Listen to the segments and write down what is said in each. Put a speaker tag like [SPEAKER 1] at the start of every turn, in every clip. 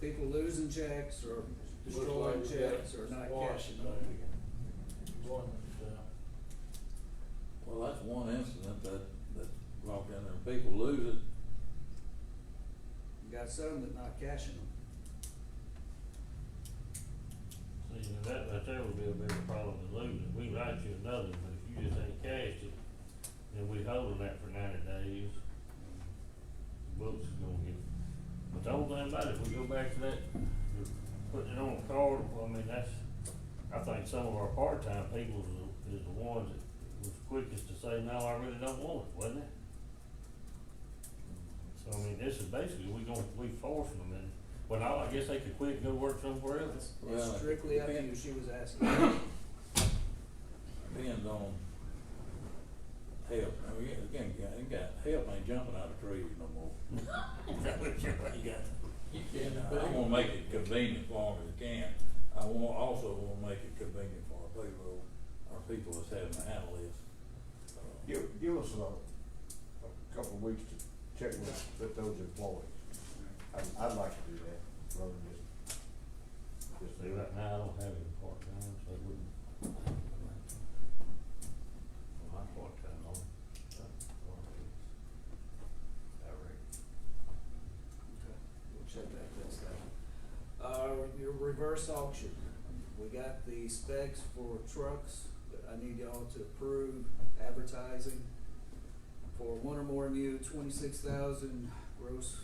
[SPEAKER 1] people losing checks or destroying
[SPEAKER 2] Looks like we got
[SPEAKER 1] checks or not
[SPEAKER 2] squashed
[SPEAKER 1] cashing
[SPEAKER 2] there.
[SPEAKER 1] them.
[SPEAKER 2] One, uh,
[SPEAKER 3] Well, that's one incident that, that walk in there, people lose it,
[SPEAKER 1] You Got some that not cashing them.
[SPEAKER 2] see, now that right there would be a bigger problem than losing, we write you another, but if you just ain't cashed it, then we holding that for ninety days, the books is gonna get. But the whole thing about it, we go back to that, putting it on a card, I mean, that's, I think some of our part-time people is the- is the ones that was quickest to say, no, I really don't want it, wasn't it? So, I mean, this is basically, we gonna, we forcing them, and, well, now I guess they could quit and go work somewhere else.
[SPEAKER 1] That's
[SPEAKER 3] Well,
[SPEAKER 1] that's strictly up to
[SPEAKER 3] depend-
[SPEAKER 1] you, she was asking.
[SPEAKER 3] depends on help, I mean, again, you got- you got, help ain't jumping out of trees no more.
[SPEAKER 2] uh,
[SPEAKER 4] You
[SPEAKER 3] And
[SPEAKER 4] can't
[SPEAKER 3] I
[SPEAKER 4] pay.
[SPEAKER 3] wanna make it convenient for them if I can, I wa- also wanna make it convenient for our people, our people that's having to handle this. Uh,
[SPEAKER 5] Give, give us a, a couple of weeks to check with, with those employees. I'd, I'd like to do that, rather than just, just.
[SPEAKER 2] See, right now, I don't have any part-time, so I wouldn't. Well, my part-time on, uh, one of these. I reckon.
[SPEAKER 1] Okay, We'll check that test out. Uh, your reverse auction, we got the specs for trucks, but I need y'all to approve advertising for one or more new twenty-six thousand gross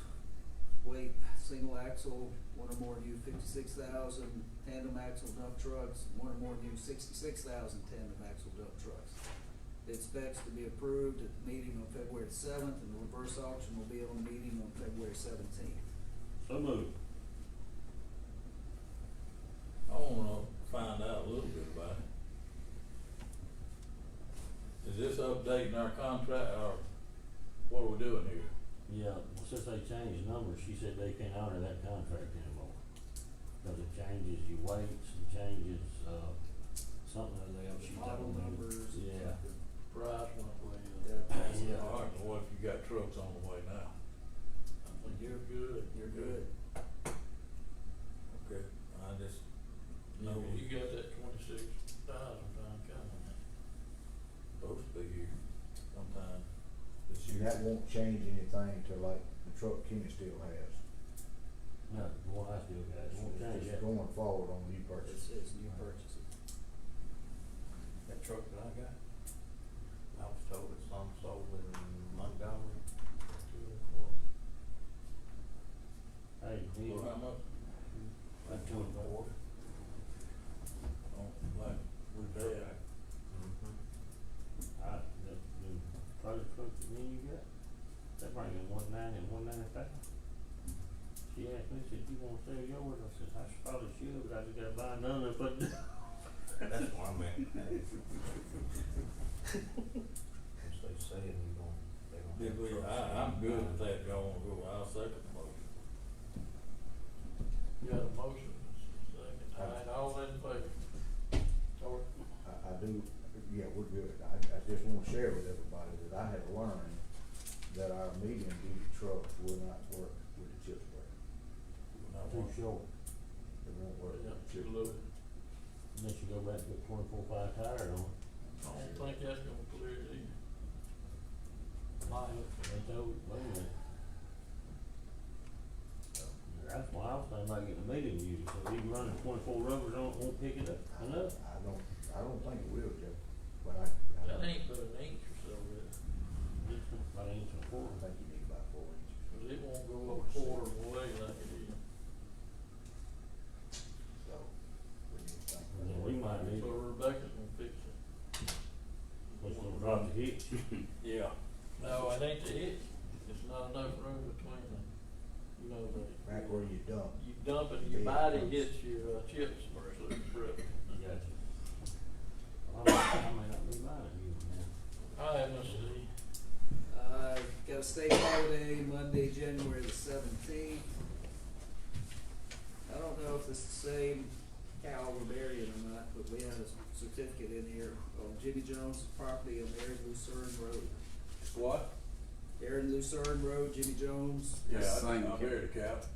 [SPEAKER 1] weight single axle, one or more new fifty-six thousand tandem axle dump trucks, one or more new sixty-six thousand tandem axle dump trucks. Bid specs to be approved at the meeting on February seventh, and the reverse auction will be on the meeting on February seventeenth.
[SPEAKER 2] So move.
[SPEAKER 3] I wanna find out a little bit about it. Is this updating our contract, or what are we doing here?
[SPEAKER 2] Yeah, well, since they changed numbers, she said they can't honor that contract anymore. Cause it changes your weights, it changes, uh, something or the other. she
[SPEAKER 1] Model
[SPEAKER 2] told me.
[SPEAKER 1] numbers. and
[SPEAKER 2] Yeah.
[SPEAKER 1] stuff.
[SPEAKER 4] Price went way
[SPEAKER 1] Yeah,
[SPEAKER 4] up.
[SPEAKER 1] that's it.
[SPEAKER 2] Yeah.
[SPEAKER 3] All right, well, what if you got trucks on the way now?
[SPEAKER 4] I think you're good.
[SPEAKER 1] You're good.
[SPEAKER 3] Okay. I just,
[SPEAKER 4] You,
[SPEAKER 3] no,
[SPEAKER 4] you got that twenty-six thousand pound coming.
[SPEAKER 3] supposed to be here sometime this
[SPEAKER 5] And
[SPEAKER 3] year.
[SPEAKER 5] that won't change anything to like the truck Kenny still has.
[SPEAKER 2] No, the one I still got, it won't change
[SPEAKER 5] It's
[SPEAKER 2] that.
[SPEAKER 5] going forward on new
[SPEAKER 1] It's,
[SPEAKER 5] purchase.
[SPEAKER 1] it's new purchases.
[SPEAKER 6] That truck that I got, I was told it's on sold in Montgomery.
[SPEAKER 2] Hey,
[SPEAKER 3] So how
[SPEAKER 2] dude,
[SPEAKER 3] much,
[SPEAKER 2] I told her.
[SPEAKER 3] on, like, we pay, I
[SPEAKER 6] Mm-hmm.
[SPEAKER 2] I, Uh, the, the project truck that me and you got, that bring in one ninety and one ninety-five. She asked me, said, you wanna sell yours? I said, I should probably should, but I just gotta buy another, but
[SPEAKER 6] That's what I meant. Which they said we gon' they gonna.
[SPEAKER 3] did we, I, I'm good with that, y'all wanna go, I'll second the motion.
[SPEAKER 4] You got a motion, second, all right, all in favor? Or,
[SPEAKER 5] I, I do, yeah, we're good. I, I just wanna share with everybody that I had learned that our medium duty trucks will not work with the chip spray.
[SPEAKER 3] Not
[SPEAKER 2] too
[SPEAKER 3] one.
[SPEAKER 2] short.
[SPEAKER 5] It won't work.
[SPEAKER 4] yeah,
[SPEAKER 5] with
[SPEAKER 4] too
[SPEAKER 5] the chip
[SPEAKER 4] low.
[SPEAKER 2] Unless you go back and put twenty-four five tire on it.
[SPEAKER 4] I don't think that's gonna clear it either. Not
[SPEAKER 2] They told, wait a minute. That's why I was thinking about getting a meeting unit, so we can run the twenty-four rubbers on, it, won't pick it up
[SPEAKER 5] I
[SPEAKER 2] enough.
[SPEAKER 5] I don't, I don't think it will, Jeff, but I, I
[SPEAKER 4] That
[SPEAKER 5] don't,
[SPEAKER 4] ain't but an inch or so, but,
[SPEAKER 2] Just about an inch and a
[SPEAKER 5] I
[SPEAKER 2] quarter.
[SPEAKER 5] think you need about four inches.
[SPEAKER 4] cause it won't go a quarter of the way like it is.
[SPEAKER 5] So, we need to think.
[SPEAKER 2] Yeah, we might need,
[SPEAKER 4] So Rebecca's gonna fix it.
[SPEAKER 2] which will drop the hitch.
[SPEAKER 3] Yeah.
[SPEAKER 4] No, it ain't the hitch, it's not enough room between them, you know, that.
[SPEAKER 5] Back where you dump,
[SPEAKER 4] You dump it, your body gets your uh, chips versus brick.
[SPEAKER 2] Gotcha. Well, I may, I may not be buying a new one now.
[SPEAKER 4] I haven't seen,
[SPEAKER 1] Uh, got a state holiday, Monday, January the seventeenth. I don't know if it's the same cow we're burying or not, but we have a certificate in here on Jimmy Jones' property on Aaron Lucerne Road.
[SPEAKER 3] What?
[SPEAKER 1] Aaron Lucerne Road, Jimmy Jones,
[SPEAKER 3] Yeah, I think I'm here to cap.